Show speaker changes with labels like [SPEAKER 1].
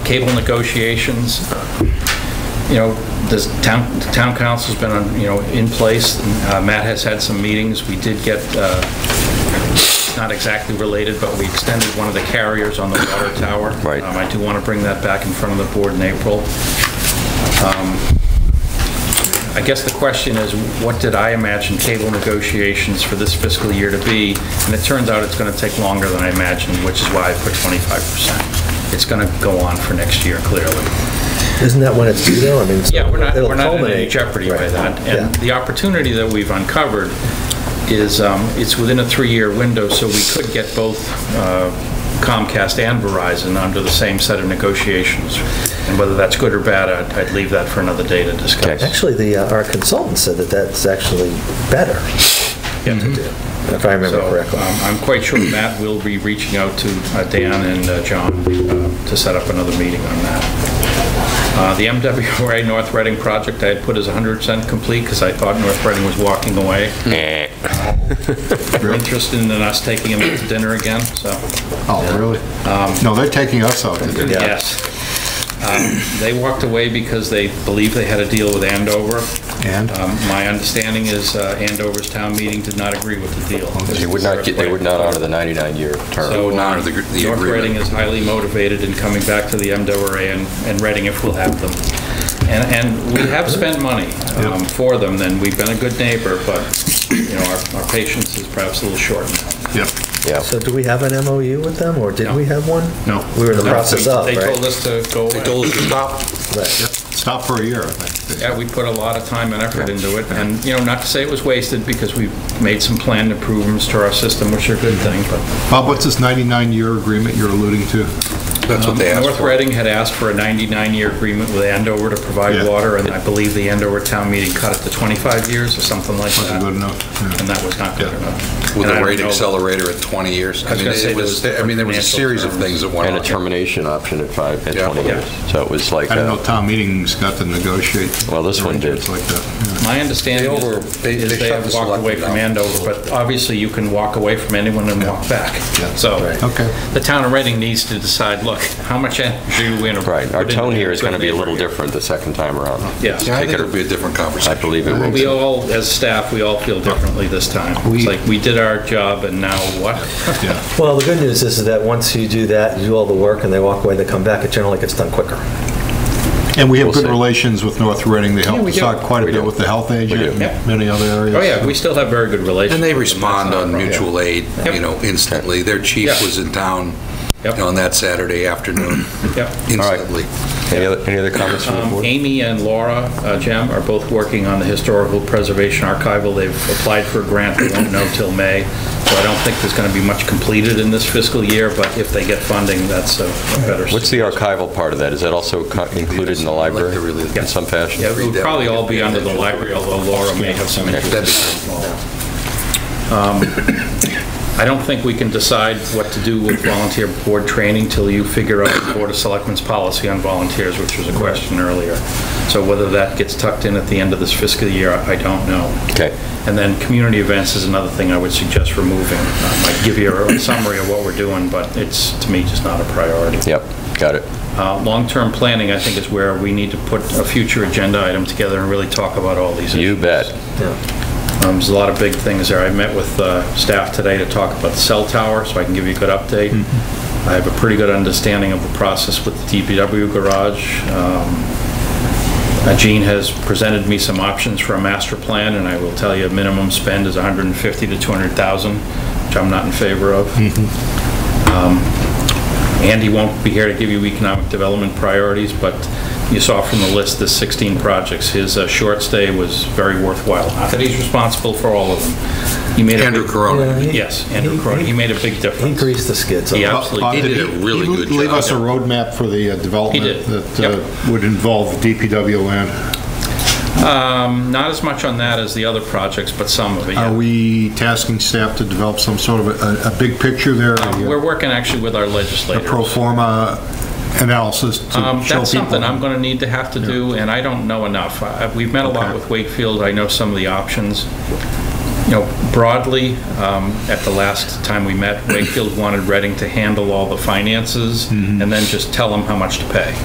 [SPEAKER 1] cable negotiations, you know, this town, the town council's been, on, you know, in place. Uh, Matt has had some meetings. We did get, uh, it's not exactly related, but we extended one of the carriers on the water tower.
[SPEAKER 2] Right.
[SPEAKER 1] Um, I do want to bring that back in front of the board in April. I guess the question is, what did I imagine cable negotiations for this fiscal year to be? And it turns out it's going to take longer than I imagined, which is why I put 25%. It's going to go on for next year, clearly.
[SPEAKER 3] Isn't that when it's due though? I mean, so
[SPEAKER 1] Yeah, we're not,
[SPEAKER 3] it'll
[SPEAKER 1] we're not in any
[SPEAKER 3] culminate.
[SPEAKER 1] jeopardy by
[SPEAKER 3] Right.
[SPEAKER 1] that.
[SPEAKER 3] Yeah.
[SPEAKER 1] And the opportunity that we've uncovered is, um, it's within a three-year window, so we could get both uh, Comcast and Verizon under the same set of negotiations. And whether that's good or bad, I'd- I'd leave that for another day to discuss.
[SPEAKER 2] Okay.
[SPEAKER 3] Actually, the, uh, our consultant said that that's actually better to do, if I Mm-hmm. remember
[SPEAKER 1] So
[SPEAKER 3] correctly.
[SPEAKER 1] um, I'm quite sure Matt will be reaching out to uh, Dan and uh, John uh, to set up another meeting on that. Uh, The MWRA North Reading project I had put as 100% complete because I thought North Reading was walking away.
[SPEAKER 2] Eh.
[SPEAKER 1] They're interested in us taking them out to dinner again, so, Um,
[SPEAKER 4] Oh, really? No, they're taking us out to dinner.
[SPEAKER 1] yes. Um, They walked away because they believe they had a deal with Andover.
[SPEAKER 4] And?
[SPEAKER 1] Um, My understanding is uh, Andover's town meeting did not agree with the deal.
[SPEAKER 4] Oh,
[SPEAKER 2] They would not, get- they would not honor the 99-year term.
[SPEAKER 1] So
[SPEAKER 5] would honor
[SPEAKER 1] um,
[SPEAKER 5] the gr- the
[SPEAKER 1] North
[SPEAKER 5] agreement.
[SPEAKER 1] Reading is highly motivated in coming back to the MWRA and- and Reading if we'll have them. And and we have spent money um, for them, and we've been a good neighbor, but, you know, our our patience is perhaps a little short now.
[SPEAKER 4] Yep.
[SPEAKER 2] Yeah.
[SPEAKER 3] So do we have an MOU with them, or did we have one?
[SPEAKER 4] No.
[SPEAKER 3] We were in the process of,
[SPEAKER 1] They told
[SPEAKER 3] right?
[SPEAKER 1] us to go away.
[SPEAKER 3] Right.
[SPEAKER 4] Stop for a year, I think.
[SPEAKER 1] Yeah, we put a lot of time and effort into it, and, you know, not to say it was wasted, because we made some planned improvements to our system, which are a good thing, but
[SPEAKER 4] Bob, what's this 99-year agreement you're alluding to?
[SPEAKER 5] That's what they asked
[SPEAKER 1] Um, North
[SPEAKER 5] for.
[SPEAKER 1] Reading had asked for a 99-year agreement with Andover to provide
[SPEAKER 4] Yeah.
[SPEAKER 1] water, and I believe the Andover town meeting cut it to 25 years or something like that.
[SPEAKER 4] Wasn't good enough, yeah.
[SPEAKER 1] And that was not good
[SPEAKER 4] Yeah.
[SPEAKER 1] enough. And
[SPEAKER 5] With
[SPEAKER 1] I
[SPEAKER 5] a
[SPEAKER 1] don't
[SPEAKER 5] rate
[SPEAKER 1] know-
[SPEAKER 5] accelerator at 20 years.
[SPEAKER 1] I was
[SPEAKER 5] mean,
[SPEAKER 1] gonna
[SPEAKER 5] it
[SPEAKER 1] say there was
[SPEAKER 5] I mean, there was
[SPEAKER 1] financial
[SPEAKER 5] a
[SPEAKER 1] um,
[SPEAKER 5] series of
[SPEAKER 1] terms.
[SPEAKER 5] things that went
[SPEAKER 2] And a
[SPEAKER 5] on.
[SPEAKER 2] termination option at five, at
[SPEAKER 5] Yeah.
[SPEAKER 2] 20
[SPEAKER 1] Yeah.
[SPEAKER 2] years. So it was like,
[SPEAKER 4] I don't know,
[SPEAKER 2] a-
[SPEAKER 4] town meetings got to negotiate.
[SPEAKER 2] Well, this one did.
[SPEAKER 4] arrangements like that.
[SPEAKER 1] My understanding
[SPEAKER 5] They over-
[SPEAKER 1] is
[SPEAKER 5] they-
[SPEAKER 1] is
[SPEAKER 5] they
[SPEAKER 1] they
[SPEAKER 5] shut
[SPEAKER 1] have
[SPEAKER 5] the
[SPEAKER 1] walked away
[SPEAKER 5] selectmen
[SPEAKER 1] from
[SPEAKER 5] down.
[SPEAKER 1] Andover, but obviously you can walk away from anyone and walk back.
[SPEAKER 4] Yeah.
[SPEAKER 1] So
[SPEAKER 4] Yeah. Okay.
[SPEAKER 1] the town of Reading needs to decide, look, how much energy are we going to put
[SPEAKER 2] right,
[SPEAKER 1] into...
[SPEAKER 2] our tone here is
[SPEAKER 1] good
[SPEAKER 2] going to be a little
[SPEAKER 1] neighborhood?
[SPEAKER 2] different the second time around.
[SPEAKER 1] Yeah.
[SPEAKER 5] Yeah, I think
[SPEAKER 2] Take it-
[SPEAKER 5] it'll be a different
[SPEAKER 2] I
[SPEAKER 5] conversation.
[SPEAKER 2] believe it will.
[SPEAKER 1] We all, as staff, we all feel differently this time. It's
[SPEAKER 4] We-
[SPEAKER 1] like, we did our job, and now what?
[SPEAKER 4] Yeah,
[SPEAKER 3] Well, the good news is that once you do that, you do all the work, and they walk away, they come back, it generally gets done quicker.
[SPEAKER 4] and we have
[SPEAKER 2] We'll
[SPEAKER 4] good
[SPEAKER 2] see.
[SPEAKER 4] relations with North Reading. They helped
[SPEAKER 1] we
[SPEAKER 4] us
[SPEAKER 1] do.
[SPEAKER 4] out quite a
[SPEAKER 2] We
[SPEAKER 4] bit
[SPEAKER 2] do.
[SPEAKER 4] with the health agent,
[SPEAKER 1] Yeah.
[SPEAKER 4] and many other areas.
[SPEAKER 1] Oh, yeah, we still have very good relations.
[SPEAKER 5] And they
[SPEAKER 1] with them. That's
[SPEAKER 5] respond
[SPEAKER 1] not a
[SPEAKER 5] on
[SPEAKER 1] problem.
[SPEAKER 5] mutual aid,
[SPEAKER 1] Yep.
[SPEAKER 5] you know, instantly. Their chief
[SPEAKER 1] Yeah.
[SPEAKER 5] was in town
[SPEAKER 1] Yep.
[SPEAKER 5] on that Saturday afternoon,
[SPEAKER 1] Yep.
[SPEAKER 5] instantly.
[SPEAKER 2] Any other, any other comments from the
[SPEAKER 1] Um,
[SPEAKER 2] board?
[SPEAKER 1] Amy and Laura uh, Jem are both working on the Historical Preservation Archival. They've applied for a grant, they won't know till May, so I don't think there's going to be much completed in this fiscal year, but if they get funding, that's a a better...
[SPEAKER 2] What's the archival part of that? Is that also co- included in the
[SPEAKER 5] I'd like to
[SPEAKER 2] library
[SPEAKER 5] really-
[SPEAKER 2] in some fashion?
[SPEAKER 1] Yeah, it would probably all be under the library, although Laura may have some
[SPEAKER 5] That'd be-
[SPEAKER 1] interest. Um, I don't think we can decide what to do with volunteer board training till you figure out the Board of Selectmen's policy on volunteers, which was a question earlier. So whether that gets tucked in at the end of this fiscal year, I I don't know.
[SPEAKER 2] Okay.
[SPEAKER 1] And then community events is another thing I would suggest removing. Um, I give you a summary of what we're doing, but it's, to me, just not a priority.
[SPEAKER 2] Yep, got it.
[SPEAKER 1] Uh, Long-term planning, I think, is where we need to put a future agenda item together and really talk about all these issues.
[SPEAKER 2] You bet.
[SPEAKER 1] Um, There's a lot of big things there. I met with uh, staff today to talk about the cell tower, so I can give you a good update. I have a pretty good understanding of the process with the DPW garage. Um, uh, Gene has presented me some options for a master plan, and I will tell you, minimum spend is 150 to 200,000, which I'm not in favor of. Um, Andy won't be here to give you economic development priorities, but you saw from the list, the 16 projects. His uh, short stay was very worthwhile. Not that he's responsible for all of them. He made a
[SPEAKER 5] Andrew
[SPEAKER 1] big-
[SPEAKER 5] Corona.
[SPEAKER 1] Yes, Andrew Cronin. He made a big
[SPEAKER 3] He
[SPEAKER 1] difference.
[SPEAKER 3] greased the skids. on
[SPEAKER 1] Yeah.
[SPEAKER 4] Bob- Bob,
[SPEAKER 1] He
[SPEAKER 5] did a really
[SPEAKER 4] he
[SPEAKER 5] good
[SPEAKER 4] Leave
[SPEAKER 5] job.
[SPEAKER 4] us a roadmap for the uh,
[SPEAKER 1] did.
[SPEAKER 4] development that
[SPEAKER 1] Yep.
[SPEAKER 4] uh, would involve the DPW land.
[SPEAKER 1] Um, Not as much on that as the other projects, but some of it, yeah.
[SPEAKER 4] Are we tasking staff to develop some sort of a, a big picture there?
[SPEAKER 1] Um, We're working actually with our
[SPEAKER 4] A
[SPEAKER 1] legislators.
[SPEAKER 4] pro forma analysis to show
[SPEAKER 1] Um,
[SPEAKER 4] people?
[SPEAKER 1] That's something I'm going to need to have to do, and I don't know enough. I- We've met a lot
[SPEAKER 4] Okay.
[SPEAKER 1] with Wakefield, I know some of the options. You know, broadly, um, at the last time
[SPEAKER 4] Mm-hmm.
[SPEAKER 1] we met, Wakefield wanted Reading to handle all the finances and then just tell them how much to pay.